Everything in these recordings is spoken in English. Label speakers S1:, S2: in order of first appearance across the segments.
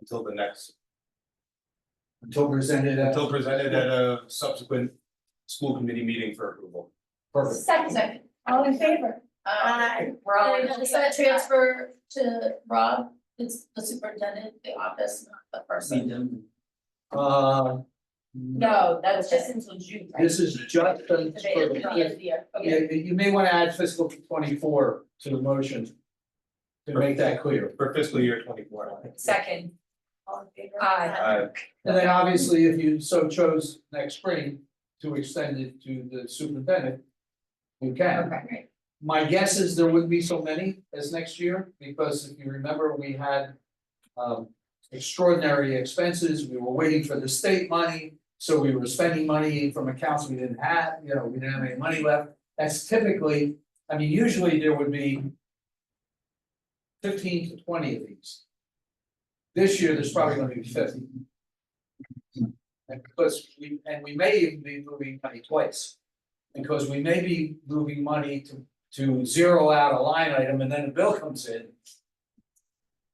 S1: until the next,
S2: until presented uh, at.
S1: until presented at a subsequent school committee meeting for approval.
S2: Perfect.
S3: Second,
S4: All in favor? Um,
S3: uh, we're all, in. it's a transfer to Rob, it's the superintendent, the office, not the
S2: Mm.
S3: person. Oh,
S2: Uh.
S3: No,
S4: That's just until June, right?
S2: This is just for the,
S4: Okay.
S2: you, you may wanna add fiscal twenty-four to the motion. To make that clear.
S1: For fiscal year twenty four.
S4: Second,
S3: All in favor?
S4: Aye.
S1: Uh,
S2: And then obviously, if you so chose next spring to extend it to the superintendent. You can.
S4: okay,
S2: My guess is there wouldn't be so many as next year, because if you remember, we had. Um, extraordinary expenses, we were waiting for the state money, so we were spending money from accounts we didn't have, you know, we didn't have any money left. That's typically, I mean, usually there would be. Fifteen to twenty of these. This year, there's probably gonna be fifty. And because we, and we may even be moving money twice. Because we may be moving money to to zero out a line item and then a bill comes in.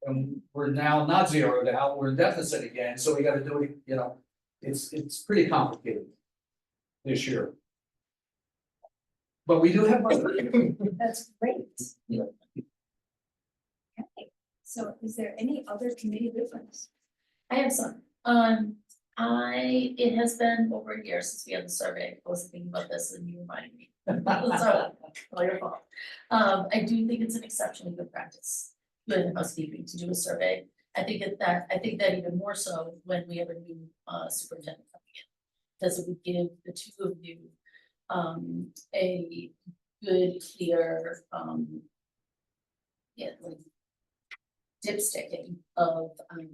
S2: And we're now not zeroed out, we're in deficit again, so we gotta do it, you know, it's it's pretty complicated. This year. But we do have money,
S4: that's great.
S2: Yeah.
S4: Okay, so is there any other committee difference?
S3: I have some, um, I, it has been over a year since we had the survey, I was thinking about this and you reminded me. So, all your fault. Um, I do think it's an exceptionally good practice, good housekeeping to do a survey. I think that that, I think that even more so when we have a new uh superintendent coming in. Because it would give the two of you um a good, clear um. Yeah, like. Dipsticking of um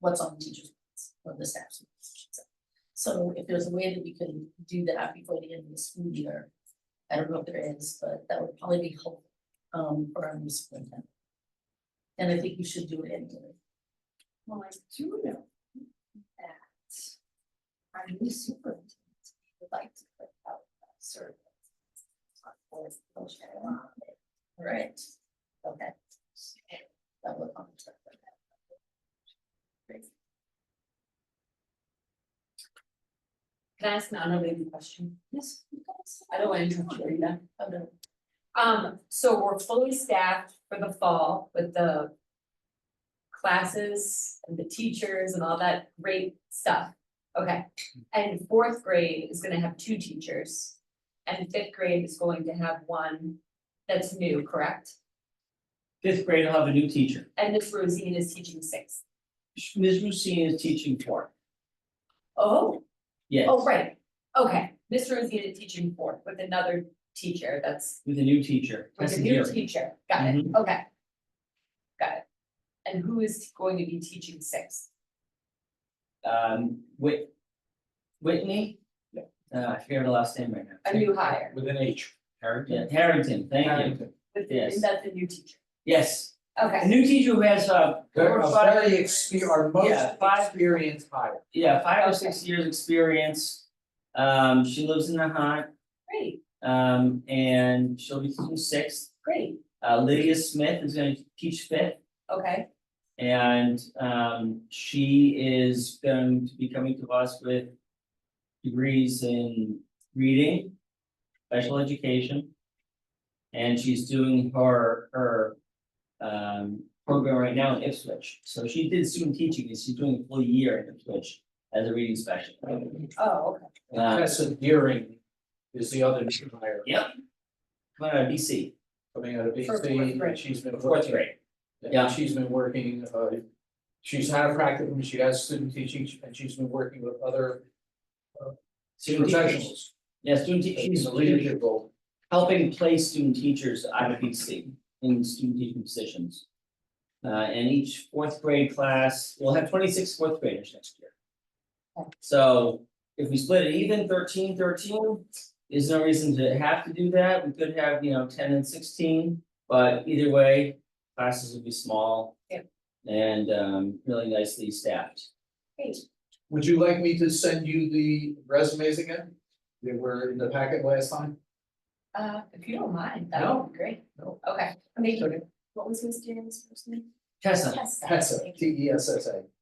S3: what's on the teachers' minds or the staff's. minds, so. So if there's a way that we can do that before the end of the school year, I don't know if there is, but that would probably be helpful um for our new superintendent. And I think you should do it anyway.
S4: Well, I do know that our new superintendent would like to put out a survey. on board promotion.
S3: Right. Okay. That would. on track for that.
S5: Can I ask an unrelated question?
S4: Yes, you guys.
S5: I don't want to interrupt you, Rita.
S3: Oh, no.
S5: Um, so we're fully staffed for the fall with the classes and the teachers and all that great stuff. Okay, and fourth grade is gonna have two teachers. And fifth grade is going to have one that's new, correct?
S6: fifth grade will have a new teacher.
S5: And Miss Rosine is teaching sixth.
S6: Ms. Rusine is teaching four.
S5: Oh.
S6: Yes,
S5: Oh, right, okay, Miss Rosine is teaching fourth with another teacher that's
S6: with a new teacher.
S5: With
S6: Tessa
S5: a new
S6: Geary.
S5: teacher, got it, okay. Got it. And who is going to be teaching sixth?
S6: Um, Whit- Whitney? Uh, I forget her last name right now.
S5: A new hire,
S2: with an H.
S6: Yeah, Harrington, thank you.
S2: Harrington.
S5: with-
S6: Yes.
S5: and that's a new teacher,
S6: Yes, a
S5: okay,
S6: new teacher who has, uh, four
S2: They're
S6: or
S2: a
S6: five-
S2: very exper- our most
S6: Yeah, five-
S2: experienced hire.
S6: yeah, five or six years experience. Um, she lives in the hut,
S5: great,
S6: um, and she'll be teaching sixth.
S5: great,
S6: Uh, Lydia Smith is gonna teach fifth.
S5: okay,
S6: And um she is going to be coming to us with degrees in reading, special education. And she's doing her her um program right now in Ipswich. So she did student teaching and she's doing a full year in Ipswich as a reading special.
S5: oh, okay,
S6: Uh,
S2: Tessa Deering is the other new hire
S6: Come on, BC,
S2: coming out of B
S5: For fourth
S2: C,
S5: grade.
S2: she's been.
S6: fourth grade.
S2: Yeah,
S6: Yeah.
S2: she's been working, uh, she's had a practicum, she has student teaching, and she's been working with other
S6: Student teachers.
S2: professionals.
S6: Yeah, student teachers.
S2: She's a leadership role.
S6: helping place student teachers out of BC in student teaching positions. Uh, and each fourth grade class, we'll have 26 fourth graders next year. So if we split it even 13, 13, there's no reason to have to do that, we could have, you know, ten and sixteen, but either way, classes would be small.
S5: Yeah.
S6: And um really nicely staffed.
S5: great,
S2: Would you like me to send you the resumes again? They were in the packet last time?
S5: uh, if you don't mind, that would be great.
S2: No.
S5: Okay, I mean,
S2: Okay.
S5: what was Miss James' first name?
S6: Tessa,
S3: Yes.
S2: Tessa, T E S S A.